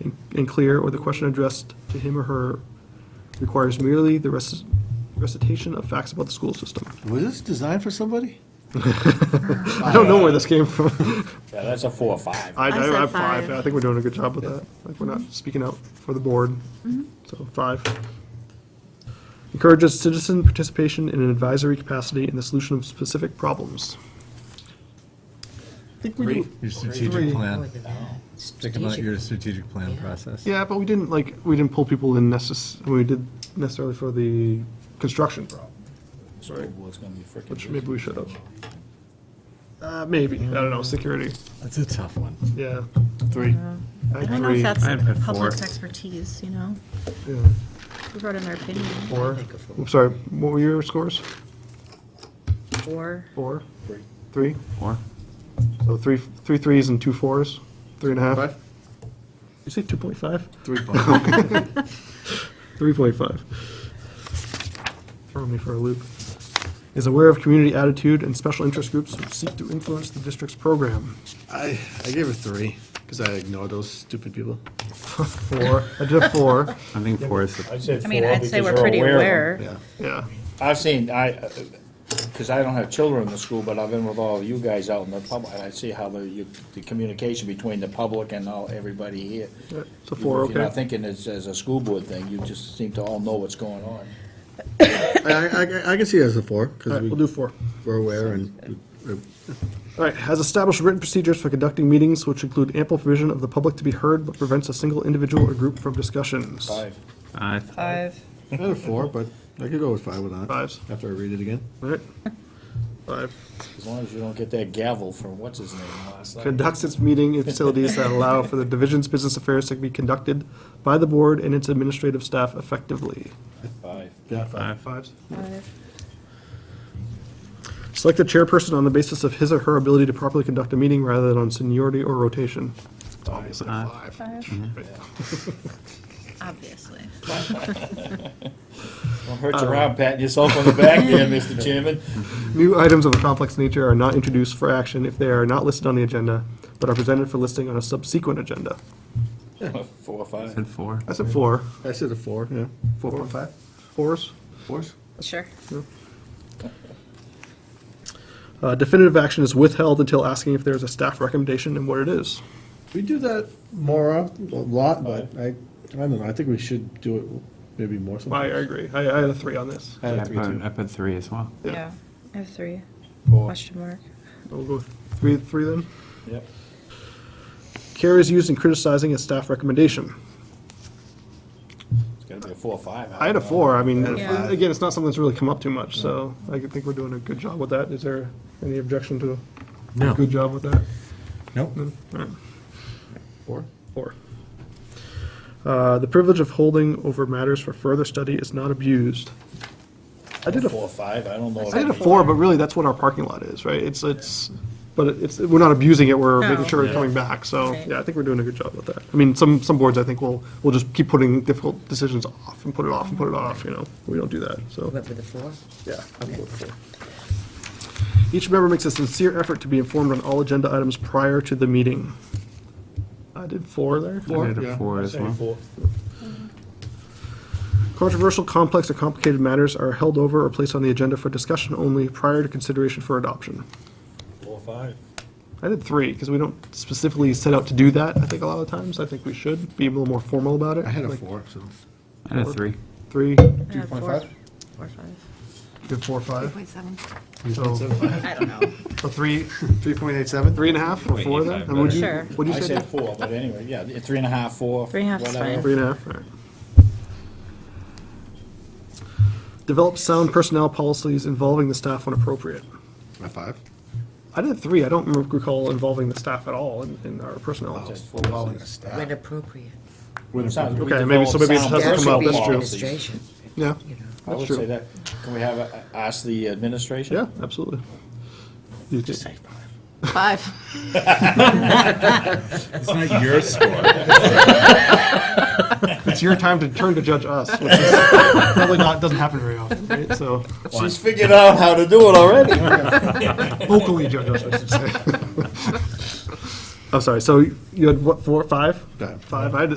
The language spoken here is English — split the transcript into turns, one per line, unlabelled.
and- and clear, or the question addressed to him or her requires merely the rec- recitation of facts about the school system.
Was this designed for somebody?
I don't know where this came from.
Yeah, that's a four or five.
I,
I
I
said
have five.
five.
I think we're doing a good job with that. Like, we're not speaking out for the board. So five. Encourages citizen participation in an advisory capacity in the solution of specific problems. I think we do,
Your
Three.
strategic plan. Think about
Strategic.
your strategic plan process.
yeah, but we didn't like, we didn't pull people in necess, we did necessarily for the construction problem,
School board's gonna be frickin'
which
busy.
maybe we should have. Uh, maybe, I don't know, security,
That's a tough one.
yeah.
Three.
I don't know if
I'd put
that's
four.
public's expertise, you know?
Yeah.
We brought in our opinion.
Four, I'm sorry, what were your scores?
Four.
Four?
Three.
Three?
Four.
So three, three threes and two fours, three and a half? You say two point five?
Three point.
Three point five. Throwing me for a loop. Is aware of community attitude and special interest groups who seek to influence the district's program.
I, I gave it three, because I ignore those stupid people.
Four, I did a four,
I think four is, the-
I'd say
I mean,
four
I'd say
because
we're
you're
pretty
of them.
aware.
Yeah.
yeah.
I've seen, I, uh, because I don't have children in the school, but I've been with all of you guys out in the public, and I see how the, you- the communication between the public and all, everybody here.
It's a four,
You're not
okay.
thinking it's as a school board thing, you just seem to all know what's going on.
I, I, I- I can see it as a four,
All
because
right,
we
we'll do four.
were aware and,
All right, has established written procedures for conducting meetings which include ample provision of the public to be heard but prevents a single individual or group from discussions.
Five.
I,
Five.
I had a four, but I could go with five with that.
Fives.
After I read it again.
All right. Five.
As long as you don't get that gavel from what's his name last night.
Conducts its meeting in facilities that allow for the division's business affairs to be conducted by the board and its administrative staff effectively.
Five.
Yeah,
five.
Fives.
Five.
Select the chairperson on the basis of his or her ability to properly conduct a meeting rather than on seniority or rotation.
Obviously
Five.
Five. Obviously.
Don't hurt
Uh,
your arm patting yourself on the back there, Mr. Chairman.
New items of a complex nature are not introduced for action if they are not listed on the agenda, but are presented for listing on a subsequent agenda.
Four or five.
said four.
I said four.
I said a four, yeah.
Four point five? Fours.
Fours?
Sure.
Uh, Definitive action is withheld until asking if there is a staff recommendation and what it is.
We do that more, of- a lot, but I, I don't know, I think we should do it maybe more
I I
sometimes.
agree. I I had a three on this.
I had
I
a three, too.
put, I put three as well.
Yeah.
Yeah. I have three. Question mark.
We'll go with three, three then.
Yep.
Care is used in criticizing a staff recommendation.
It's gotta be a four or five.
I had a four, I mean,
I had
a five.
again, it's not something that's really come up too much, so I think we're doing a good job with that. Is there any objection to a
No.
good job with that?
Nope.
Four?
Four. Uh, The privilege of holding over matters for further study is not abused. I did a
Four or five, I don't know.
I did a
if-
four, but really, that's what our parking lot is, right? It's, it's, but it's, we're not abusing it, we're making
No.
sure we're coming back, so,
Right.
yeah, I think we're doing a good job with that. I mean, some, some boards, I think, will, will just keep putting difficult decisions off, and put it off, and put it off, you know? We don't do that, so,
Went with the four?
yeah. I'm good with four. Each member makes a sincere effort to be informed on all agenda items prior to the meeting. I did four there.
I did a
yeah.
four as
Say
well.
four.
Controversial, complex, or complicated matters are held over or placed on the agenda for discussion only prior to consideration for adoption.
Four or five.
I did three, because we don't specifically set out to do that, I think, a lot of times. I think we should be a little more formal about it.
I had a
Like,
four, so.
I had a three.
Three, you
Two point five? Four, five.
did four, five.
Point seven.
So,
I don't know.
a three,
Three point eight seven?
three and a half, or four then? And what'd you-
Sure.
What'd
I
you say?
said
Dan?
four, but anyway, yeah, three and a half, four.
Three and a half is
whatever.
fine.
Three and a half, all right. Develop sound personnel policies involving the staff when appropriate.
My five?
I did three. I don't recall involving the staff at all in, in our personnel.
Just four.
When appropriate.
Sounds- we
Okay, maybe- so maybe it has
developed
That
to come out
sound
should be
that's
personnel
true.
policies.
administration,
Yeah,
you know.
I would
true.
say that, can we have, a- ask the administration?
yeah, absolutely. You think-
Five.
It's not your score.
It's your time to turn to judge us, which is probably not, doesn't happen very often, right? So
She's figured out how to do it already.
vocally judge us, I should say. I'm sorry, so you had what, four, five?
Five.
Five, I had,